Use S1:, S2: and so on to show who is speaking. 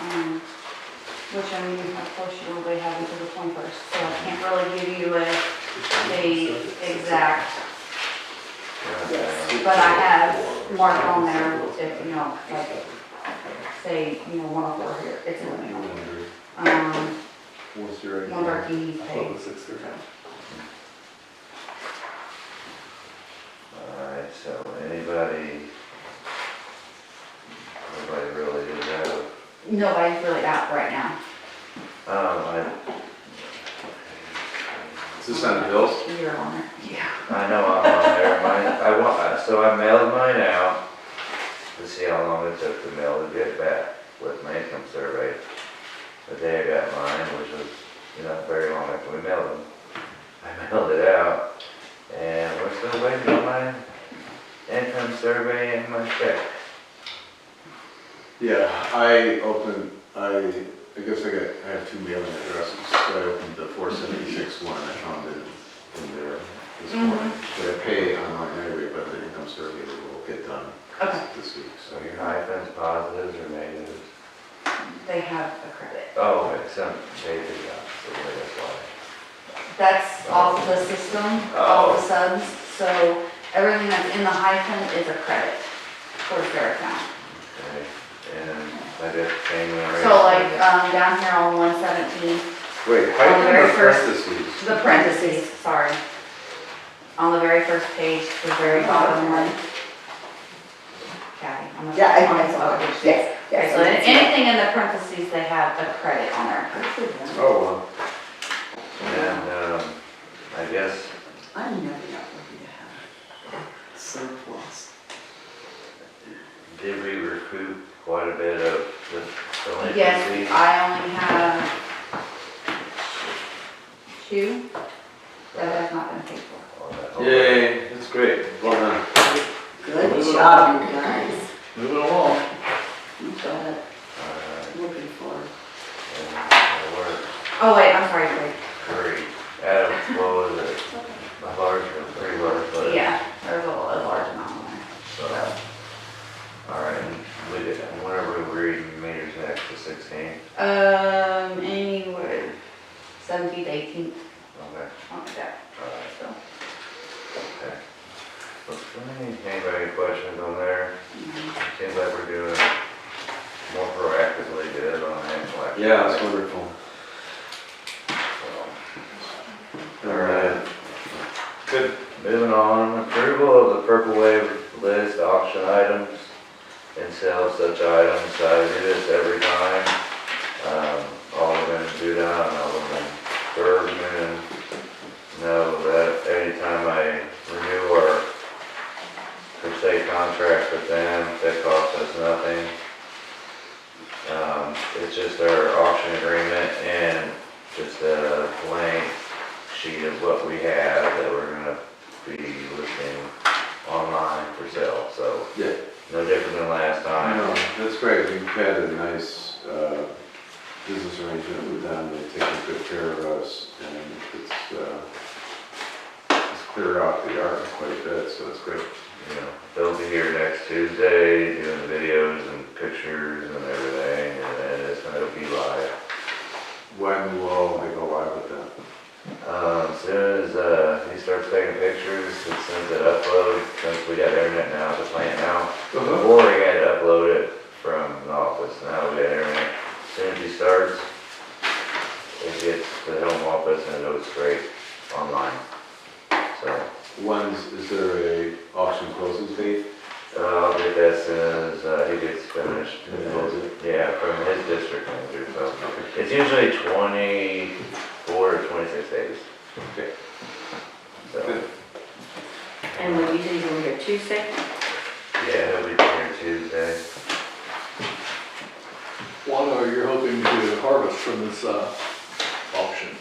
S1: Um, which I mean, unfortunately, we have until the twenty-first, so I can't really give you a date exact,
S2: Yes.
S1: but I have marked on there if, you know, like, say, you know, one oh four here, it's in the mail. Um,
S2: What's your?
S1: one of our key things.
S2: six or
S3: Alright, so anybody, nobody really did that.
S1: Nobody's really out right now.
S3: Um, I,
S2: Is this on the bills?
S1: You're on it. Yeah.
S3: I know I'm on there, mine, I want, I- so I mailed mine out. Let's see how long it took to mail to get back with my income survey. But they got mine, which was not very long after we mailed them. I mailed it out, and we're still waiting on my income survey and my check.
S2: Yeah, I opened, I, I guess I got, I have two mailing addresses, so I opened the four seventy-six one, I found it in there this
S1: Mm-hmm.
S2: morning. But I pay online anyway, but the income survey will get done
S1: Okay,
S2: this week, so.
S3: So your hyphens, positives, or negatives?
S1: they have a credit.
S3: Oh, wait, some, they did that, so wait, that's why.
S1: That's all the system, all the subs, so everything that's in the hyphen is a credit for their account.
S3: Okay, And I did the same when I raised.
S1: So like, um, down here on one seventeen, On
S2: Wait,
S1: the
S2: how do
S1: very
S2: you
S1: first-
S2: press this week?
S1: the parentheses, sorry. On the very first page, the very bottom one. Kathy, I'm gonna.
S4: Yeah, I-
S1: on
S4: I
S1: the
S4: saw it.
S1: page.
S4: Yes,
S1: Okay,
S4: yes,
S1: so
S4: I did see that.
S1: anything in the parentheses, they have a credit on there.
S2: Oh, well.
S1: uh,
S3: And, um, I guess,
S4: I'm never not looking to have surplus.
S3: did we recoup quite a bit of the
S1: Yes,
S3: delinquencies?
S1: I only have two that have not been paid for.
S3: On that whole-
S2: Yay, that's great, well done.
S4: Good job, you guys.
S2: Moving along.
S4: You got it,
S3: Alright,
S4: looking for.
S3: and I worked
S1: Oh, wait, I'm sorry, wait,
S3: three, Adam, what was it? A large, or pretty large, but.
S1: yeah, there's a a large amount on there.
S3: So, alright, and we did, and whenever we were reading meters next to sixteen,
S1: Um, anywhere, seventeenth, eighteenth,
S3: okay.
S1: something like that,
S3: Alright,
S1: so.
S3: okay. Well, Anybody got questions on there? Seems like we're doing more proactively good on hand collection.
S2: Yeah, that's wonderful.
S3: So,
S2: Alright. Good.
S3: Moving on, approval of the Purple Wave list auction items and sell such items, I do this every time. Um, Alderman Dudon, Alderman Bergman, know that anytime I renew our per se contract with them, that costs us nothing. Um, it's just our auction agreement and just a blank sheet of what we have that we're gonna be listing online for sale, so
S2: Yeah.
S3: no different than last
S2: I
S3: time.
S2: know, that's great, we've had a nice uh, business arrangement with them, they've taken good care of us, and it's, uh, it's cleared out the yard quite a bit, so it's great.
S3: You know, they'll be here next Tuesday doing videos and pictures and everything, and then it's gonna be live.
S2: When will they go live with that?
S3: Um, as soon as, uh, he starts taking pictures, as soon as it uploads, since we got internet now, at the plant now, before we had to upload it from the office, now we got internet. As Soon as he starts, it gets to the home office and it goes straight online. So,
S2: When's, is there a auction closing date?
S3: uh, I'll get that as soon as, uh, he gets finished.
S2: And close it?
S3: Yeah, from his district manager, so. It's usually twenty-four or twenty-six days,
S2: Okay,
S3: so.
S2: good.
S4: And when you do, you're here Tuesday?
S3: Yeah, he'll be here Tuesday.
S5: What are you hoping to harvest from this uh, auction?